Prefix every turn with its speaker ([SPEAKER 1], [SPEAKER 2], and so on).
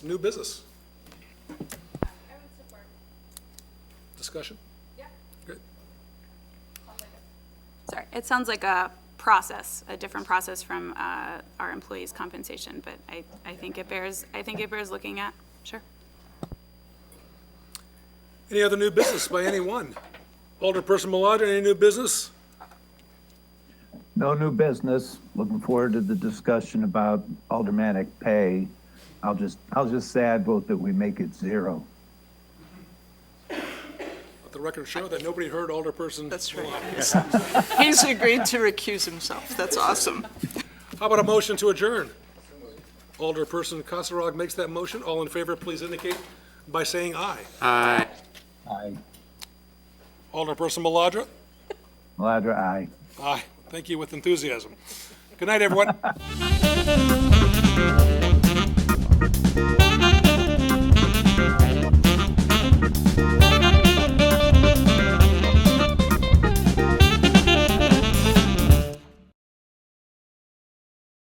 [SPEAKER 1] New business,
[SPEAKER 2] I would support,
[SPEAKER 1] discussion?
[SPEAKER 2] yeah.
[SPEAKER 1] Great.
[SPEAKER 2] Sorry, it sounds like a process, a different process from uh, our employees' compensation, but I, I think it bears, I think it bears looking at, sure.
[SPEAKER 1] Any other new business by anyone? Alderperson Maladra, any new business?
[SPEAKER 3] No new business. Looking forward to the discussion about aldermanic pay. I'll just, I'll just say I vote that we make it zero.
[SPEAKER 1] Let the record show that nobody heard Alderperson.
[SPEAKER 4] That's right. He's agreed to recuse himself. That's awesome.
[SPEAKER 1] How about a motion to adjourn? Alderperson Casarog makes that motion. All in favor, please indicate by saying aye.
[SPEAKER 3] Aye.
[SPEAKER 1] Alderperson Maladra?
[SPEAKER 3] Maladra, aye.
[SPEAKER 1] Aye. Thank you with enthusiasm. Good night, everyone.